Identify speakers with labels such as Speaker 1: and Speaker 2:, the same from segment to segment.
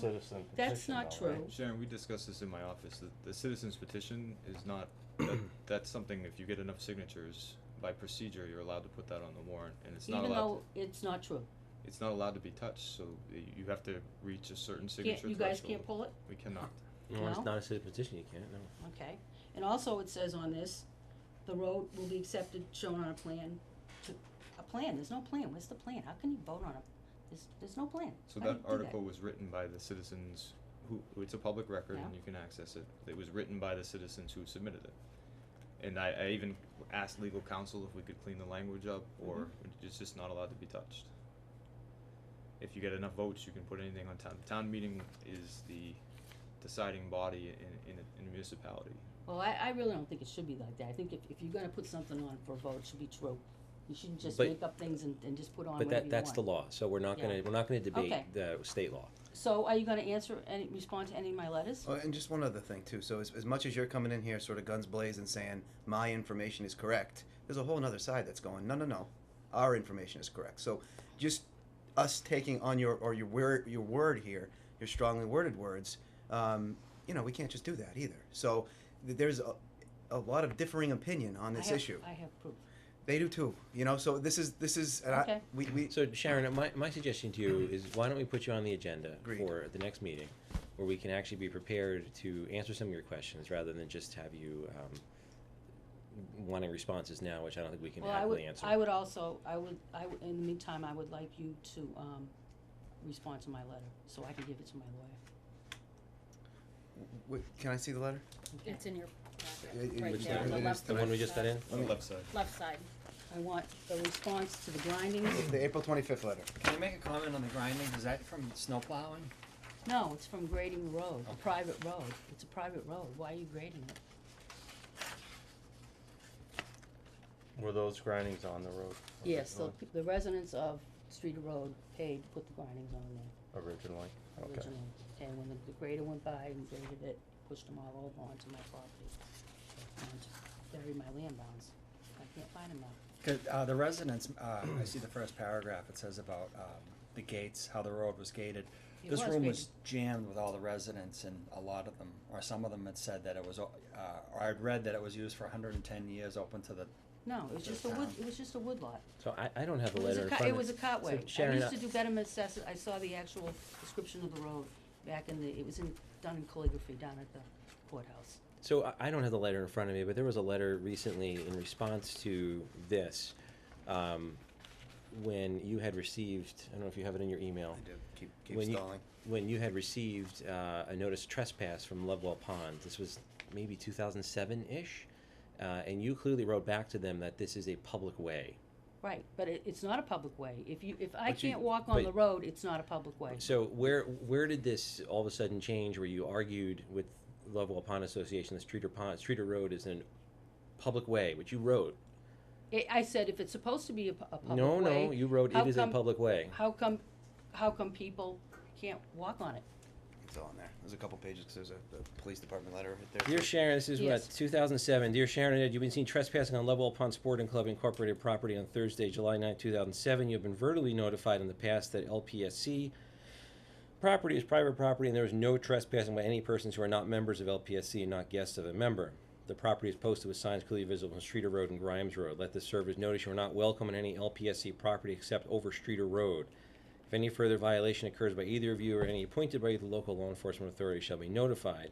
Speaker 1: citizen petition.
Speaker 2: That's not
Speaker 1: though, right?
Speaker 2: true.
Speaker 3: Sharon, we discussed this in my office, the, the citizens petition is not, that, that's something, if you get enough signatures, by procedure, you're allowed to put that on the warrant, and it's not
Speaker 2: even
Speaker 3: allowed,
Speaker 2: though it's not true.
Speaker 3: it's not allowed to be touched, so y- you have to reach a certain signature
Speaker 2: Can't, you
Speaker 3: threshold.
Speaker 2: guys can't pull it?
Speaker 3: We cannot.
Speaker 2: No, it's Well-
Speaker 4: not a city petition, you can't, no.
Speaker 2: Okay. And also it says on this, the road will be accepted, shown on a plan, to, a plan, there's no plan, where's the plan? How can you vote on a, there's, there's no plan.
Speaker 3: So
Speaker 2: How do
Speaker 3: that
Speaker 2: you do
Speaker 3: article was written by the citizens who, it's a public record and
Speaker 2: Yeah.
Speaker 3: you can access it. It was written by the citizens who submitted it. And I, I even asked legal counsel if we could clean the language up or
Speaker 1: Mm-hmm.
Speaker 3: it's just not allowed to be touched. If you get enough votes, you can put anything on town. Town meeting is the deciding body in, in a- in a municipality.
Speaker 2: Well, I, I really don't think it should be like that. I think if, if you're gonna put something on for a vote, it should be true. You shouldn't just
Speaker 4: But-
Speaker 2: make up things and, and just put on
Speaker 4: But
Speaker 2: whatever
Speaker 4: that,
Speaker 2: you
Speaker 4: that's the
Speaker 2: want.
Speaker 4: law, so we're not
Speaker 2: Yeah.
Speaker 4: gonna, we're not gonna debate
Speaker 2: Okay.
Speaker 4: the state law.
Speaker 2: So are you gonna answer any, respond to any of my letters?
Speaker 5: Oh, and just one other thing too. So as, as much as you're coming in here, sort of guns blazing, saying my information is correct, there's a whole other side that's going, no, no, no, our information is correct. So just us taking on your or your word your word here, your strongly worded words, um, you know, we can't just do that either. So th- there's a, a lot of differing opinion on
Speaker 2: I
Speaker 5: this
Speaker 2: have-
Speaker 5: issue.
Speaker 2: I have proof.
Speaker 5: They do too, you know. So this is this is and I,
Speaker 2: Okay.
Speaker 5: we we
Speaker 4: So Sharon, my, my suggestion to you is why don't we put you on the agenda
Speaker 5: Agreed.
Speaker 4: for the next meeting? Where we can actually be prepared to answer some of your questions rather than just have you, um, wanting responses now, which I don't think we can
Speaker 2: Well, I would,
Speaker 4: happily answer.
Speaker 2: I would also, I would, I would, in the meantime, I would like you to, um, respond to my letter, so I can give it to my lawyer.
Speaker 5: w- can I see the letter?
Speaker 2: Okay.
Speaker 6: It's in your
Speaker 5: It-
Speaker 6: packet,
Speaker 5: it-
Speaker 6: right
Speaker 5: it's
Speaker 6: there, on
Speaker 5: not-
Speaker 6: the
Speaker 5: it is
Speaker 6: left.
Speaker 4: The one we just got in?
Speaker 3: On the left side.
Speaker 6: Left side.
Speaker 2: I want the response to the grinding.
Speaker 5: The April twenty fifth letter.
Speaker 7: Can I make a comment on the grinding? Is that from snow plowing?
Speaker 2: No, it's from grading the road, a private road. It's a private road. Why are you grading it?
Speaker 1: Were those grindings on the road?
Speaker 2: Yes, the,
Speaker 1: originally-
Speaker 2: pe- the residents of Street Road paid, to put the grindings on there
Speaker 1: Originally, okay.
Speaker 2: originally. And when the the grader went by and graded it, pushed them all over onto my property. And buried my land bounds. I can't find them now.
Speaker 7: 'Cause, uh, the residents, uh, I see the first paragraph, it says about, um, the gates, how the road was gated.
Speaker 2: It
Speaker 7: This
Speaker 2: was
Speaker 7: room
Speaker 2: gated.
Speaker 7: was jammed with all the residents and a lot of them, or some of them had said that it was, o- uh, or I'd read that it was used for hundred and ten years, open to the,
Speaker 2: No, it was just a wood,
Speaker 7: Down.
Speaker 2: it was just a wood lot.
Speaker 4: So I, I don't have the
Speaker 2: It was
Speaker 4: letter
Speaker 2: a
Speaker 4: in
Speaker 2: co-
Speaker 4: front of
Speaker 2: It was a
Speaker 4: so
Speaker 2: cotway. I
Speaker 4: Sharon, uh,
Speaker 2: used to do better assessment, I saw the actual description of the road back in the, it was in, done in calligraphy down at the courthouse.
Speaker 4: So I, I don't have the letter in front of me, but there was a letter recently in response to this, um, when you had received, I don't know if you have it in your email.
Speaker 5: I do. Keep keep
Speaker 4: Oh. when you-
Speaker 5: stalling.
Speaker 4: When you had received, uh, a notice trespass from Lovewell Pond, this was maybe two thousand seven-ish, uh, and you clearly wrote back to them that this is a public way.
Speaker 2: Right, but it, it's not a public way. If you, if I
Speaker 4: But you-
Speaker 2: can't walk on
Speaker 4: but-
Speaker 2: the road, it's not a public way.
Speaker 4: So where, where did this all of a sudden change, where you argued with Lovewell Pond Association, that Streeter Pond, Streeter Road is an public way, which you wrote,
Speaker 2: I, I said, if it's supposed to be a, pu- a public
Speaker 4: No,
Speaker 2: way,
Speaker 4: no, you wrote
Speaker 2: how
Speaker 4: it is a
Speaker 2: come-
Speaker 4: public way.
Speaker 2: how come, how come people can't walk on it?
Speaker 5: It's all in there. There's a couple pages 'cause there's a, a police department letter right there.
Speaker 4: Dear Sharon, this is what,
Speaker 2: Yes.
Speaker 4: 2007. Dear Sharon and Ed, you've been seen trespassing on Level Pond Sporting Club Incorporated property on Thursday, July 9, 2007. You have been verbally notified in the past that LPSC property is private property and there is no trespassing by any persons who are not members of LPSC and not guests of a member. The property is posted with signs clearly visible on Streeter Road and Grimes Road. Let the servers notice you are not welcome on any LPSC property except over Streeter Road. If any further violation occurs by either of you or any appointed by the local law enforcement authority shall be notified.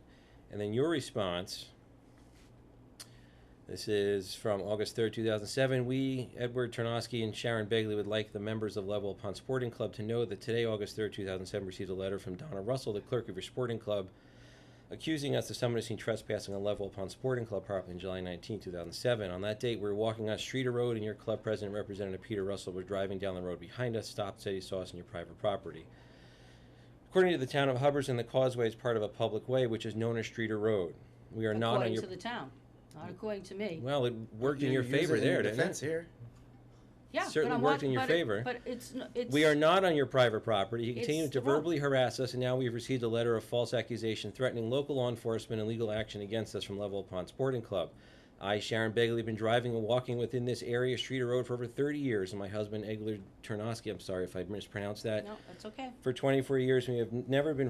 Speaker 4: And then your response. This is from August 3rd, 2007. We, Edward Tarnowski and Sharon Begley, would like the members of Level Pond Sporting Club to know that today, August 3rd, 2007, received a letter from Donna Russell, the clerk of your sporting club, accusing us of someone who's seen trespassing on Level Pond Sporting Club property on July 19, 2007. On that date, we were walking on Streeter Road, and your club president, Representative Peter Russell, was driving down the road behind us, stopped, said he saw us on your private property. According to the town of Hubbardson, the causeway is part of a public way, which is known as Streeter Road. We are not on
Speaker 2: According
Speaker 4: your.
Speaker 2: to the town, not according to me.
Speaker 4: Well, it worked in
Speaker 5: You
Speaker 4: your
Speaker 5: use it
Speaker 4: favor
Speaker 5: in
Speaker 4: there,
Speaker 5: your
Speaker 4: didn't
Speaker 5: defense
Speaker 4: it?
Speaker 5: here.
Speaker 2: Yeah, but
Speaker 4: certainly
Speaker 2: I'm
Speaker 4: worked
Speaker 2: walk-
Speaker 4: in your
Speaker 2: but it-
Speaker 4: favor.
Speaker 2: But it's, n- it's.
Speaker 4: We are not on your private property. He
Speaker 2: It's
Speaker 4: continued to
Speaker 2: the road.
Speaker 4: verbally harass us, and now we've received a letter of false accusation threatening local law enforcement and legal action against us from Level Pond Sporting Club. I, Sharon Begley, have been driving and walking within this area, street or road, for over 30 years, and my husband, Egler Ternosky, I'm sorry if I mispronounced that,
Speaker 2: No, it's okay.
Speaker 4: for 24 years, we have never been